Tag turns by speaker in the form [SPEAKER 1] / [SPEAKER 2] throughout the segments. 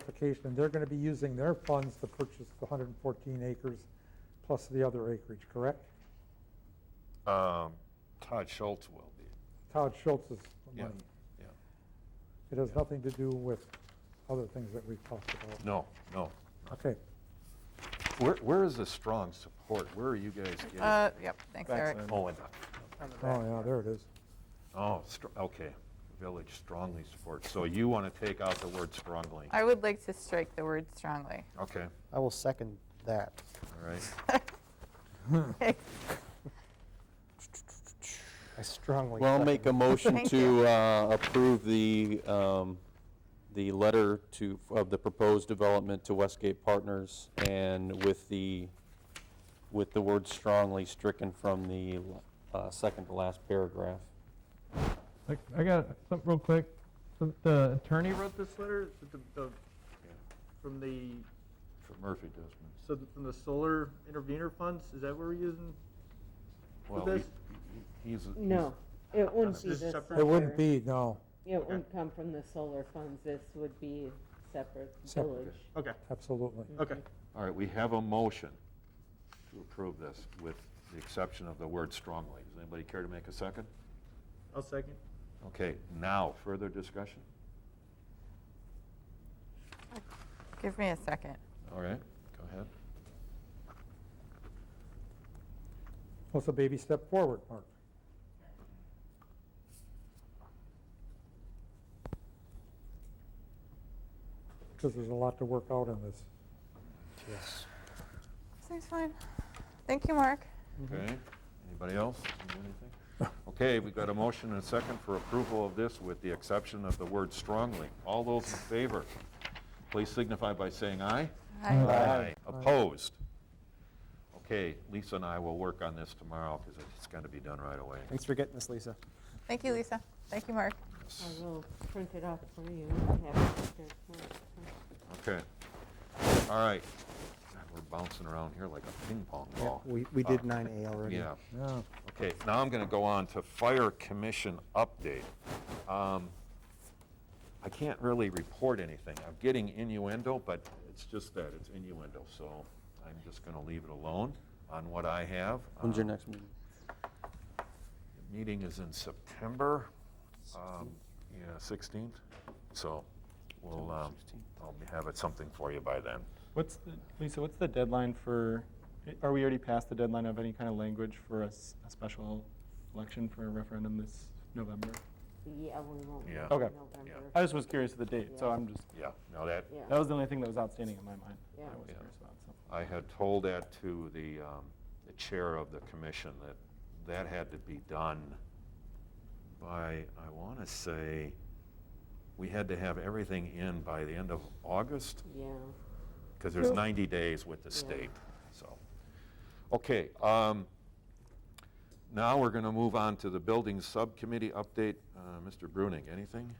[SPEAKER 1] clarification, and they're going to be using their funds to purchase the 114 acres plus the other acreage, correct?
[SPEAKER 2] Um, Todd Schultz will be,
[SPEAKER 1] Todd Schultz's
[SPEAKER 2] Yeah.
[SPEAKER 1] money.
[SPEAKER 2] yeah.
[SPEAKER 1] It has nothing to do with other things that we've talked about.
[SPEAKER 2] No, no.
[SPEAKER 1] Okay,
[SPEAKER 2] Where, where is the strong support? Where are you guys
[SPEAKER 3] Uh,
[SPEAKER 2] getting?
[SPEAKER 3] yep, thanks, Eric.
[SPEAKER 2] Oh, and,
[SPEAKER 3] On the back.
[SPEAKER 1] oh, yeah, there it is.
[SPEAKER 2] oh, str- okay, village strongly supports. So you want to take out the word strongly?
[SPEAKER 3] I would like to strike the word strongly.
[SPEAKER 2] Okay,
[SPEAKER 4] I will second that.
[SPEAKER 2] all right.
[SPEAKER 3] Okay,
[SPEAKER 4] I strongly.
[SPEAKER 5] Well, I'll
[SPEAKER 4] second
[SPEAKER 5] make a
[SPEAKER 4] that.
[SPEAKER 5] motion
[SPEAKER 3] Thank
[SPEAKER 5] to uh, approve the, um, the letter to, of the proposed development to Westgate Partners and with the, with the word strongly stricken from the uh, second to last paragraph.
[SPEAKER 6] Like, I got something real quick. So the attorney wrote this letter is it the, the, from the
[SPEAKER 2] For Murphy Desmond.
[SPEAKER 6] so th- from the solar intervenor funds. Is that what we're using?
[SPEAKER 2] Well,
[SPEAKER 6] this-
[SPEAKER 2] he- he- he's. he's-
[SPEAKER 7] No, it wouldn't be
[SPEAKER 6] This is
[SPEAKER 7] this.
[SPEAKER 6] separate?
[SPEAKER 1] It wouldn't
[SPEAKER 7] letter.
[SPEAKER 1] be, no,
[SPEAKER 7] It wouldn't come from the solar funds. This would be separate
[SPEAKER 1] Separate.
[SPEAKER 7] village.
[SPEAKER 6] Okay.
[SPEAKER 1] absolutely.
[SPEAKER 3] Mm.
[SPEAKER 6] Okay.
[SPEAKER 2] All right, we have a motion to approve this with the exception of the word strongly. Does anybody care to make a second?
[SPEAKER 6] I'll second.
[SPEAKER 2] Okay, now, further discussion?
[SPEAKER 3] give me a second.
[SPEAKER 2] All right, go ahead.
[SPEAKER 1] What's a baby step forward, Mark? Because there's a lot to work out in this.
[SPEAKER 4] Yes.
[SPEAKER 3] Seems fine. Thank you, Mark.
[SPEAKER 2] Okay, anybody else? Anything? Okay, we've got a motion and a second for approval of this with the exception of the word strongly. All those in favor, please signify by saying aye.
[SPEAKER 1] Uh,
[SPEAKER 3] Hi.
[SPEAKER 2] Opposed? Okay, Lisa and I will work on this tomorrow because it's got to be done right away.
[SPEAKER 4] Thanks for getting this, Lisa.
[SPEAKER 3] Thank you, Lisa. Thank you, Mark.
[SPEAKER 7] I will print it off for you and have it there tomorrow.
[SPEAKER 2] Okay, all right. God, We're bouncing around here like a ping pong
[SPEAKER 4] Yeah,
[SPEAKER 2] ball.
[SPEAKER 4] We, we did
[SPEAKER 2] Uh,
[SPEAKER 4] 9A already.
[SPEAKER 2] Yeah.
[SPEAKER 1] Yeah.
[SPEAKER 2] Okay, now I'm going to go on to Fire Commission update. Um, I can't really report anything. I'm getting innuendo, but it's just that, it's innuendo, so I'm just going to leave it alone on what I have.
[SPEAKER 5] When's your
[SPEAKER 2] Um,
[SPEAKER 5] next meeting?
[SPEAKER 2] the Meeting is in September, um, yeah, 16th, so we'll,
[SPEAKER 5] September
[SPEAKER 2] um,
[SPEAKER 5] 16th.
[SPEAKER 2] I'll have it something for you by then.
[SPEAKER 8] What's the, Lisa, what's the deadline for, are we already past the deadline of any kind of language for a, s- a special election for a referendum this November?
[SPEAKER 7] Yeah, we won't.
[SPEAKER 2] Yeah.
[SPEAKER 7] wait
[SPEAKER 8] Okay.
[SPEAKER 7] till
[SPEAKER 2] Yeah.
[SPEAKER 7] November.
[SPEAKER 8] I just was curious of the date, so
[SPEAKER 7] Yeah.
[SPEAKER 8] I'm just,
[SPEAKER 2] Yeah, no, that,
[SPEAKER 7] Yeah.
[SPEAKER 8] that was the only thing that was outstanding in my mind. that
[SPEAKER 7] Yeah.
[SPEAKER 8] I was
[SPEAKER 2] Yeah.
[SPEAKER 8] curious about, so.
[SPEAKER 2] I had told that to the, um, the chair of the commission, that that had to be done by, I want to say, we had to have everything in by the end of August,
[SPEAKER 7] Yeah.
[SPEAKER 2] because there's 90 days with the
[SPEAKER 7] Yeah.
[SPEAKER 2] state, so. Okay, um, now we're going to move on to the building subcommittee update. Uh, Mr. Bruning, anything?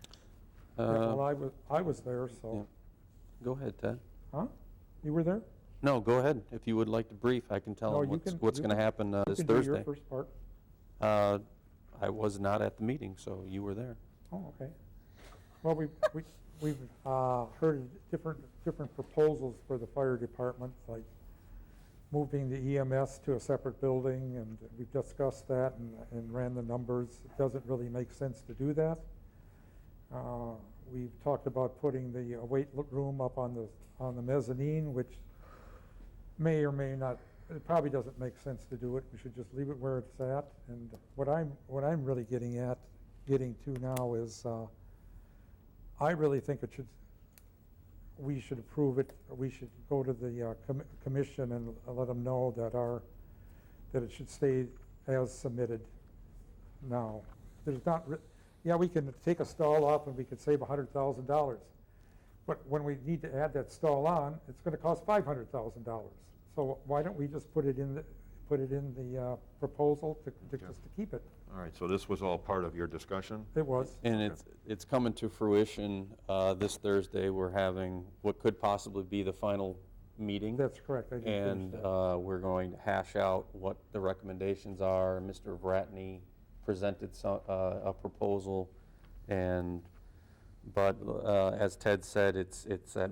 [SPEAKER 1] Well,
[SPEAKER 5] Uh,
[SPEAKER 1] I was, I was there, so,
[SPEAKER 5] Go ahead, Ted.
[SPEAKER 1] huh? You were there?
[SPEAKER 5] No, go ahead. If you would like to brief, I can
[SPEAKER 1] No,
[SPEAKER 5] tell 'em
[SPEAKER 1] you
[SPEAKER 5] what's,
[SPEAKER 1] can-
[SPEAKER 5] what's
[SPEAKER 1] you-
[SPEAKER 5] going to happen uh,
[SPEAKER 1] You
[SPEAKER 5] this
[SPEAKER 1] can do your
[SPEAKER 5] Thursday.
[SPEAKER 1] first part.
[SPEAKER 5] Uh, I was not at the meeting, so you were there.
[SPEAKER 1] Oh, okay. Well, we, we, we've, uh, heard different, different proposals for the fire department, like moving the EMS to a separate building, and we've discussed that and, and ran the numbers. It doesn't really make sense to do that. Uh, We've talked about putting the uh, weight lo- room up on the, on the mezzanine, which may or may not, it probably doesn't make sense to do it. We should just leave it where it's at. And what I'm, what I'm really getting at, getting to now is, uh, I really think it should, we should approve it, we should go to the uh, com- commission and let them know that our, that it should stay as submitted now. There's not, re- yeah, we can take a stall off and we could save $100,000. But when we need to add that stall on, it's going to cost $500,000. So why don't we just put it in, the put it in the uh, proposal to, to
[SPEAKER 2] Okay.
[SPEAKER 1] just to keep it?
[SPEAKER 2] All right, so this was all part of your discussion?
[SPEAKER 1] It was.
[SPEAKER 5] And it's, it's coming to fruition. uh, This Thursday, we're having what could possibly be the final meeting.
[SPEAKER 1] That's correct. I didn't finish
[SPEAKER 5] And
[SPEAKER 1] that.
[SPEAKER 5] uh, we're going to hash out what the recommendations are. Mr. Vratney presented so- uh, a proposal, and, but uh, as Ted said, it's, it's at